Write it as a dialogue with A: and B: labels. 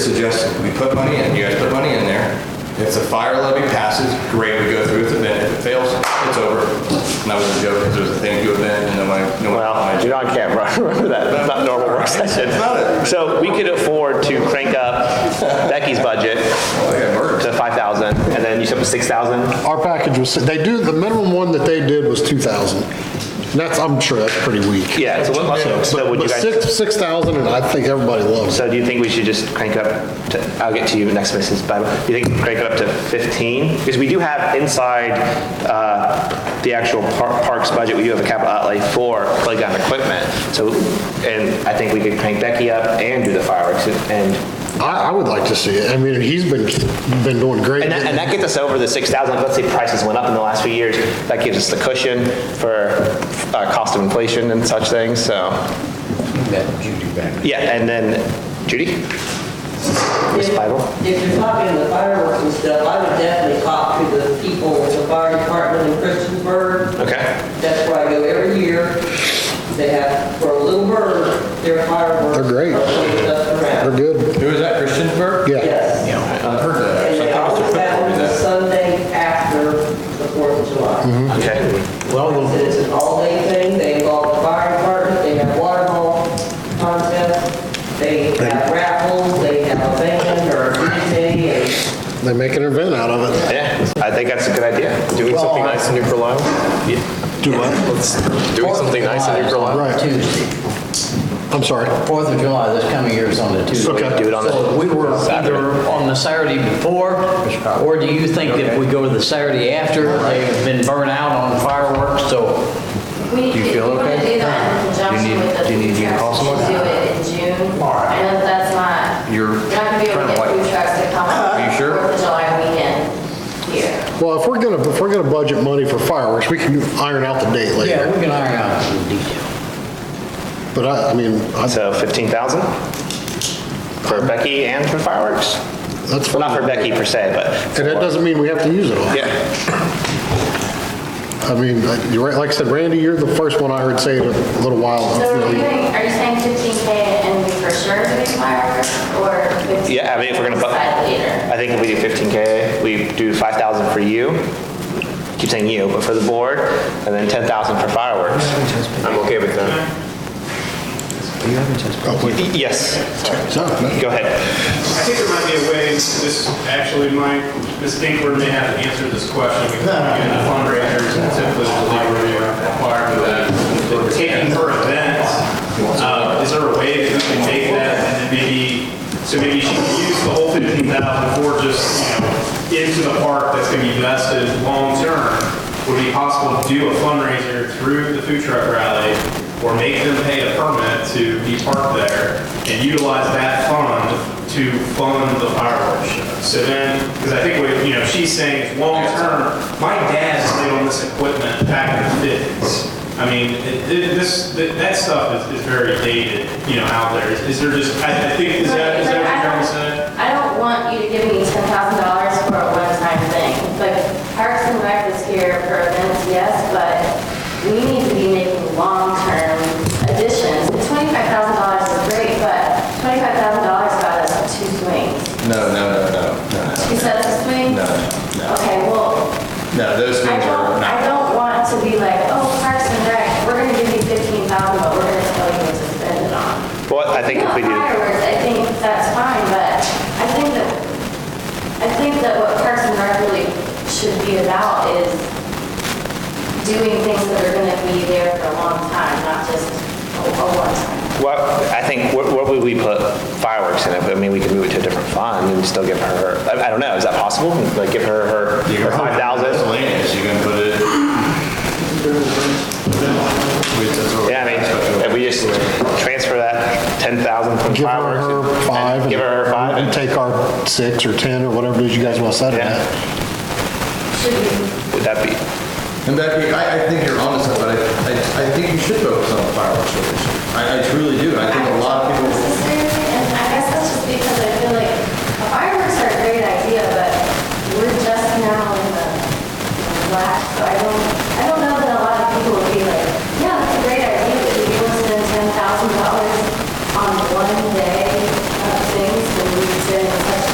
A: suggests we put money in, you guys put money in there. If the fire levy passes, great, we go through with it, then if it fails, it's over. And that was a joke, because it was a thank you event, and nobody, no one.
B: Well, you're on camera, remember that, it's not a normal work session. So we could afford to crank up Becky's budget
A: I got murdered.
B: to 5,000, and then you said 6,000?
C: Our package was, they do, the minimum one that they did was 2,000. And that's, I'm sure that's pretty weak.
B: Yeah, so what, so would you
C: But
B: guys,
C: six, 6,000, and I think everybody loves it.
B: so do you think we should just crank up to, I'll get to you next, Mrs. Bible. Do you think crank it up to 15? Because we do have inside, uh, the actual par- parks budget, we do have a capital outlay for playground equipment. So, and I think we could crank Becky up and do the fireworks and
C: I, I would like to see it. I mean, he's been, been doing great.
B: And that, and that gets us over the 6,000, let's say prices went up in the last few years, that gives us the cushion for uh, cost of inflation and such things, so. Yeah, and then, Judy? Ms. Bible?
D: If you're talking the fireworks and stuff, I would definitely talk to the people with the fire department in Christiansburg.
B: Okay.
D: That's where I go every year. They have, for a little bird, their fireworks.
C: They're great.
D: are lit up
C: They're
D: around.
C: good,
A: Who is that, Christiansburg?
C: yeah.
D: Yes.
A: I've heard that,
D: And
A: actually.
D: they
A: I thought it
D: always
A: was a
D: have
A: football,
D: them
A: is
D: the
A: that-
D: Sunday after the Fourth of
C: Mm-hmm.
D: July.
B: Okay.
D: And It's an all-day thing. They involve the fire department, they have water hall contest, they have raffles, they have a band or a DJ and
C: They make an event out of it.
B: Yeah, I think that's a good idea. Doing something nice in New Carlisle?
C: Do what?
B: Doing something nice in New Carlisle?
C: Right.
E: Tuesday.
C: I'm sorry.
E: Fourth of July, this coming year is on the Tuesday.
C: Okay.
B: Do it on the-
E: So we were either on the Saturday before, or do you think if we go to the Saturday after, they've been burnt out on fireworks, so
F: We, if you want to do that in conjunction with the food trucks, we should do it in June. I know that that's not,
A: You're
F: you're not gonna be able to
A: trying to
F: get
A: like-
F: food trucks to come on
A: you sure?
F: Fourth of July weekend here.
C: Well, if we're gonna, if we're gonna budget money for fireworks, we can iron out the date
E: yeah,
C: later.
E: we can iron out some detail.
C: But I, I mean, I-
B: So 15,000 for Becky and for fireworks?
C: that's
B: Well, not for
C: fine.
B: Becky per se, but.
C: And that doesn't mean we have to use it all.
B: Yeah.
C: I mean, like- you're right, like I said, Randy, you're the first one I heard say it a little while.
F: So are you
C: ago.
F: doing, are you saying fifteen K and we for sure doing fireworks or fifteen?
B: Yeah, I mean, if we're gonna bu-
F: Decide later.
B: I think if we do 15K, we do 5,000 for you, keep saying you, but for the board, and then 10,000 for fireworks. I'm okay with that.
C: Oh, wait.
B: Yes,
C: So,
B: go ahead.
G: I think there might be a way, this actually might, Ms. Dinkler may have to answer this question, because again, the fundraisers and typically the labor they are required for that. But Taking her events, uh, is there a way that we can take that and then maybe, so maybe she can use the whole fifteen thousand for just, you know, into the park that's gonna be vested long-term? Would it be possible to do a fundraiser through the food truck rally or make them pay a permit to be parked there and utilize that fund to fund the fireworks show. So then, because I think what, you know, she's saying is long-term, my dad stayed on this equipment back in the 50s. I mean, it- it- this, that that stuff is, is very dated, you know, out there. Is- Is there just, I I think, is that, is that what you're trying to say?
F: I don't want you to give me ten thousand dollars for a one-time thing. Like Parks and Rec is here for events, yes, but we need to be making long-term additions. Twenty-five thousand dollars is great, but twenty-five thousand dollars got us two swings.
A: No, no, no, no, no, no.
F: You said it's a swing?
A: No, no.
F: Okay, well,
A: No, those
F: I
A: things are
F: don't,
A: not.
F: I don't want to be like, oh, Parks and Rec, we're gonna give you fifteen thousand, but we're gonna tell you what to spend it on.
B: Well, I think if we
F: No,
B: do,
F: fireworks, I think that's fine, but I think that, I think that what Parks and Rec really should be about is doing things that are gonna be there for a long time, not just a a one-time.
B: what, I think, where where would we put fireworks in it? I mean, we could move it to a different fund and still give her, I I don't know, is that possible? Like, give her her
A: You
B: her
A: can put it in
B: 5,000?
A: Miscellaneous, you can put it. Wait, that's what-
B: Yeah, I mean, if we just transfer that 10,000 from
C: Give her
B: fireworks. and-
C: her
B: and
C: five.
B: Give her her five.
C: And take our six or 10 or whatever it is you guys want to set it
B: Yeah.
C: at.
F: Should be
B: Would that be?
A: And Becky, I, I think you're onto something, but I, I I think you should focus on the fireworks show this year. I, I truly do. I think a lot of people